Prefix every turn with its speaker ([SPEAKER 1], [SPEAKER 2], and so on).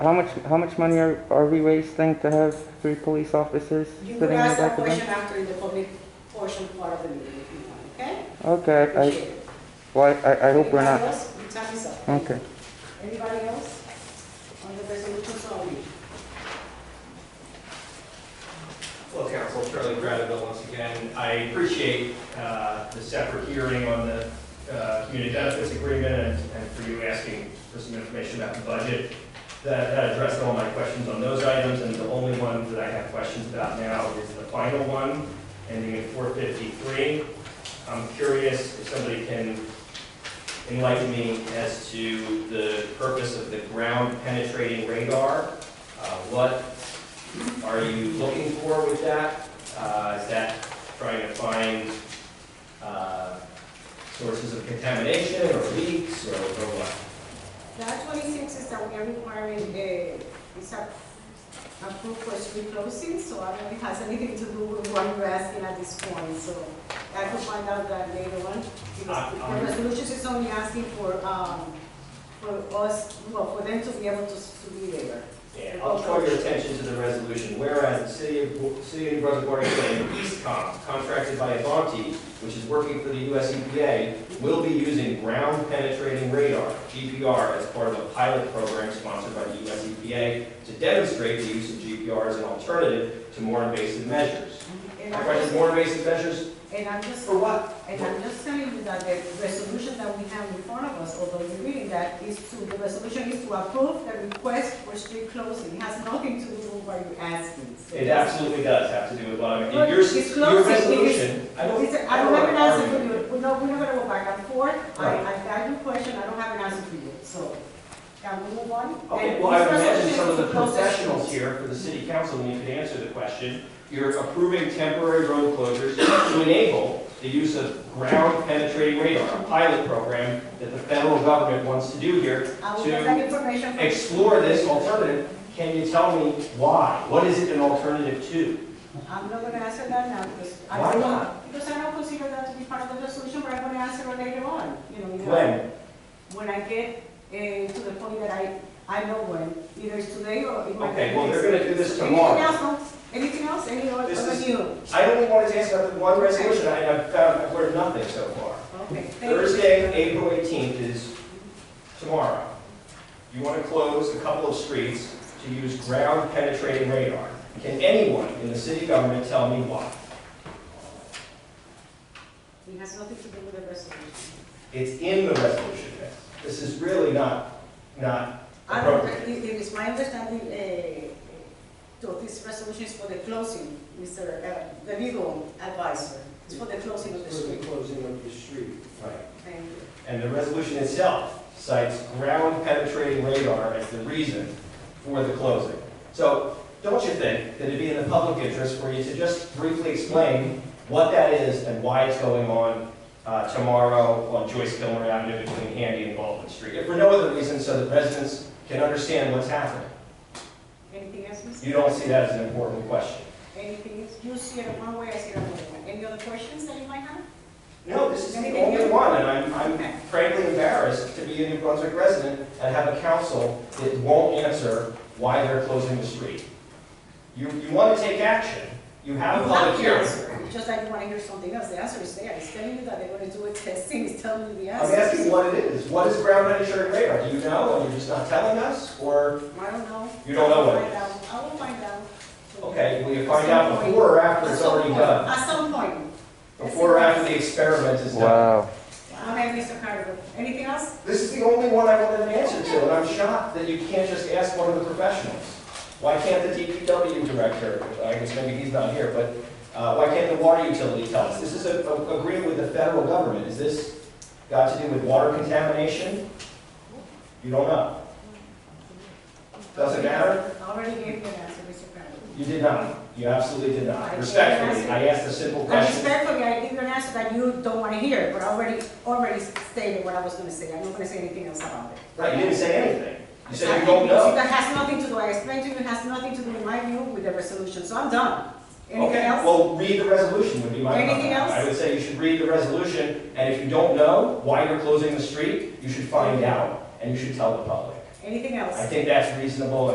[SPEAKER 1] How much, how much money are, are we wasting to have three police officers
[SPEAKER 2] You
[SPEAKER 1] sitting
[SPEAKER 2] could
[SPEAKER 1] in the
[SPEAKER 2] ask that
[SPEAKER 1] back of
[SPEAKER 2] question
[SPEAKER 1] them?
[SPEAKER 2] after the public portion part of the meeting if you want, okay?
[SPEAKER 1] Okay, I,
[SPEAKER 2] Appreciate it.
[SPEAKER 1] well, I, I hope we're
[SPEAKER 2] Anybody
[SPEAKER 1] not,
[SPEAKER 2] else? You tell me something.
[SPEAKER 1] okay.
[SPEAKER 2] Anybody else on the resolution, sorry?
[SPEAKER 3] Hello, Council. Charlie Gradville once again. I appreciate uh, the separate hearing on the uh, community benefits agreement and- and for you asking for some information about the budget. That that addressed all my questions on those items, and the only one that I have questions about now is the final one, ending in 453. I'm curious if somebody can enlighten me as to the purpose of the ground penetrating radar. Uh, What are you looking for with that? Uh, Is that trying to find uh, sources of contamination or leaks or or what?
[SPEAKER 2] That twenty-six is that we are requiring, uh, is a- approved for street closing, so I don't know if it has anything to do with what you're asking at this point, so I could find out that later on. Because
[SPEAKER 3] I- I'm-
[SPEAKER 2] the resolution is only asking for, um, for us, well, for them to be able to, s- to be there.
[SPEAKER 3] Yeah, I'll draw your attention to the resolution, whereas the City of, City of New Brunswick Water Plant, Eastcom, contracted by Avanti, which is working for the US EPA, will be using ground penetrating radar, GPR, as part of a pilot program sponsored by the US EPA to demonstrate the use of GPR as an alternative to more invasive measures.
[SPEAKER 2] And
[SPEAKER 3] My
[SPEAKER 2] I'm
[SPEAKER 3] question is
[SPEAKER 2] just,
[SPEAKER 3] more invasive measures
[SPEAKER 2] and I'm just.
[SPEAKER 3] for what?
[SPEAKER 2] And I'm just telling you that the resolution that we have in front of us, although you're reading that, is to, the resolution is to approve the request for street closing. It has nothing to do with what you're asking. So
[SPEAKER 3] It absolutely does have to do with what I'm,
[SPEAKER 2] Look,
[SPEAKER 3] your,
[SPEAKER 2] it's
[SPEAKER 3] your
[SPEAKER 2] closing, it is-
[SPEAKER 3] resolution, I don't.
[SPEAKER 2] It's,
[SPEAKER 3] I
[SPEAKER 2] I
[SPEAKER 3] don't
[SPEAKER 2] don't have an
[SPEAKER 3] wanna
[SPEAKER 2] answer for
[SPEAKER 3] argue.
[SPEAKER 2] you. We're not, we're not gonna go back and forth. I,
[SPEAKER 3] Right.
[SPEAKER 2] I got your question. I don't have an answer for you, so. Can we move on?
[SPEAKER 3] Okay,
[SPEAKER 2] And
[SPEAKER 3] well, I
[SPEAKER 2] this
[SPEAKER 3] would imagine
[SPEAKER 2] resolution
[SPEAKER 3] some of
[SPEAKER 2] is
[SPEAKER 3] the
[SPEAKER 2] to close
[SPEAKER 3] professionals
[SPEAKER 2] streets.
[SPEAKER 3] here for the city council, and you could answer the question. You're approving temporary road closures to enable the use of ground penetrating radar, a pilot program that the federal government wants to do here.
[SPEAKER 2] I will
[SPEAKER 3] to
[SPEAKER 2] get that information. from-
[SPEAKER 3] Explore this alternative. Can you tell me why? What is it an alternative to?
[SPEAKER 2] I'm not gonna answer that now because I
[SPEAKER 3] Why
[SPEAKER 2] don't.
[SPEAKER 3] not?
[SPEAKER 2] Because I don't consider that to be part of the resolution, but I'm gonna answer it later on, you know. you know.
[SPEAKER 3] When?
[SPEAKER 2] When I get, uh, to the point that I, I know when, either it's today or it might be.
[SPEAKER 3] Okay, well, they're gonna do this
[SPEAKER 2] Anything
[SPEAKER 3] tomorrow.
[SPEAKER 2] else, no? anything else, any other,
[SPEAKER 3] This
[SPEAKER 2] other
[SPEAKER 3] is-
[SPEAKER 2] new?
[SPEAKER 3] I only wanted to ask about the one resolution, I have found, I've learned nothing so far.
[SPEAKER 2] Okay, thank you.
[SPEAKER 3] Thursday, April 18th is tomorrow. You want to close a couple of streets to use ground penetrating radar. Can anyone in the city government tell me why?
[SPEAKER 2] It has nothing to do with the resolution.
[SPEAKER 3] It's in the resolution. This is really not, not
[SPEAKER 2] I don't,
[SPEAKER 3] appropriate.
[SPEAKER 2] it it is my understanding, uh, that this resolution is for the closing, Mr. uh, the legal advisor. It's for the closing of the
[SPEAKER 4] For the
[SPEAKER 2] street.
[SPEAKER 4] closing of the street.
[SPEAKER 3] Right.
[SPEAKER 2] Thank you.
[SPEAKER 3] And the resolution itself cites ground penetrating radar as the reason for the closing. So don't you think that it'd be in the public interest for you to just briefly explain what that is and why it's going on uh, tomorrow on Joyce Gilmer Avenue between Handy and Baldwin Street? If for no other reason, so that residents can understand what's happening.
[SPEAKER 2] Anything else, Mr.?
[SPEAKER 3] You don't see that as an important question.
[SPEAKER 2] Anything else? You see it one way, I see it another way. Any other questions that you might have?
[SPEAKER 3] No, this is the only one, and I'm, I'm frankly embarrassed to be a New Brunswick resident and have a council that won't answer why they're closing the street. You, you want to take action, you have a
[SPEAKER 2] You have
[SPEAKER 3] public
[SPEAKER 2] the
[SPEAKER 3] hearing.
[SPEAKER 2] answer. Just like you want to hear something else, the answer is there. It's telling you that they're going to do a testing, it's telling you the
[SPEAKER 3] I'm
[SPEAKER 2] answer.
[SPEAKER 3] asking what it is, what is ground penetrating radar, do you know, and you're just not telling us, or,
[SPEAKER 2] I don't know.
[SPEAKER 3] You don't know what it
[SPEAKER 2] I'll find out. I will find out.
[SPEAKER 3] okay, will you find out before or after
[SPEAKER 2] At
[SPEAKER 3] it's
[SPEAKER 2] some
[SPEAKER 3] already
[SPEAKER 2] point.
[SPEAKER 3] done?
[SPEAKER 2] At some point.
[SPEAKER 3] Before or after the experiment is done?
[SPEAKER 1] Wow.
[SPEAKER 2] Okay, Mr. Carter, anything else?
[SPEAKER 3] This is the only one I wanted an answer to, and I'm shocked that you can't just ask one of the professionals. Why can't the DPW director, I guess maybe he's not here, but uh, why can't the water utility tell us? This is a- a- agreement with the federal government. Is this got to do with water contamination? You don't know. Doesn't matter.
[SPEAKER 2] I already gave you an answer, Mr. Carter.
[SPEAKER 3] You did not. You absolutely did not. Respectfully, I asked a simple
[SPEAKER 2] And
[SPEAKER 3] question.
[SPEAKER 2] respectfully, I gave you an answer that you don't want to hear, but I already, already stated what I was going to say. I'm not going to say anything else about it.
[SPEAKER 3] Right, you didn't say anything. You said you don't know.
[SPEAKER 2] That has nothing to do, I explained to you, it has nothing to do, in my view, with the resolution, so I'm done. Anything
[SPEAKER 3] Okay,
[SPEAKER 2] else?
[SPEAKER 3] well, read the resolution would be my comment.
[SPEAKER 2] Anything else?
[SPEAKER 3] I would say you should read the resolution, and if you don't know why you're closing the street, you should find out, and you should tell the public.
[SPEAKER 2] Anything else?
[SPEAKER 3] I think that's reasonable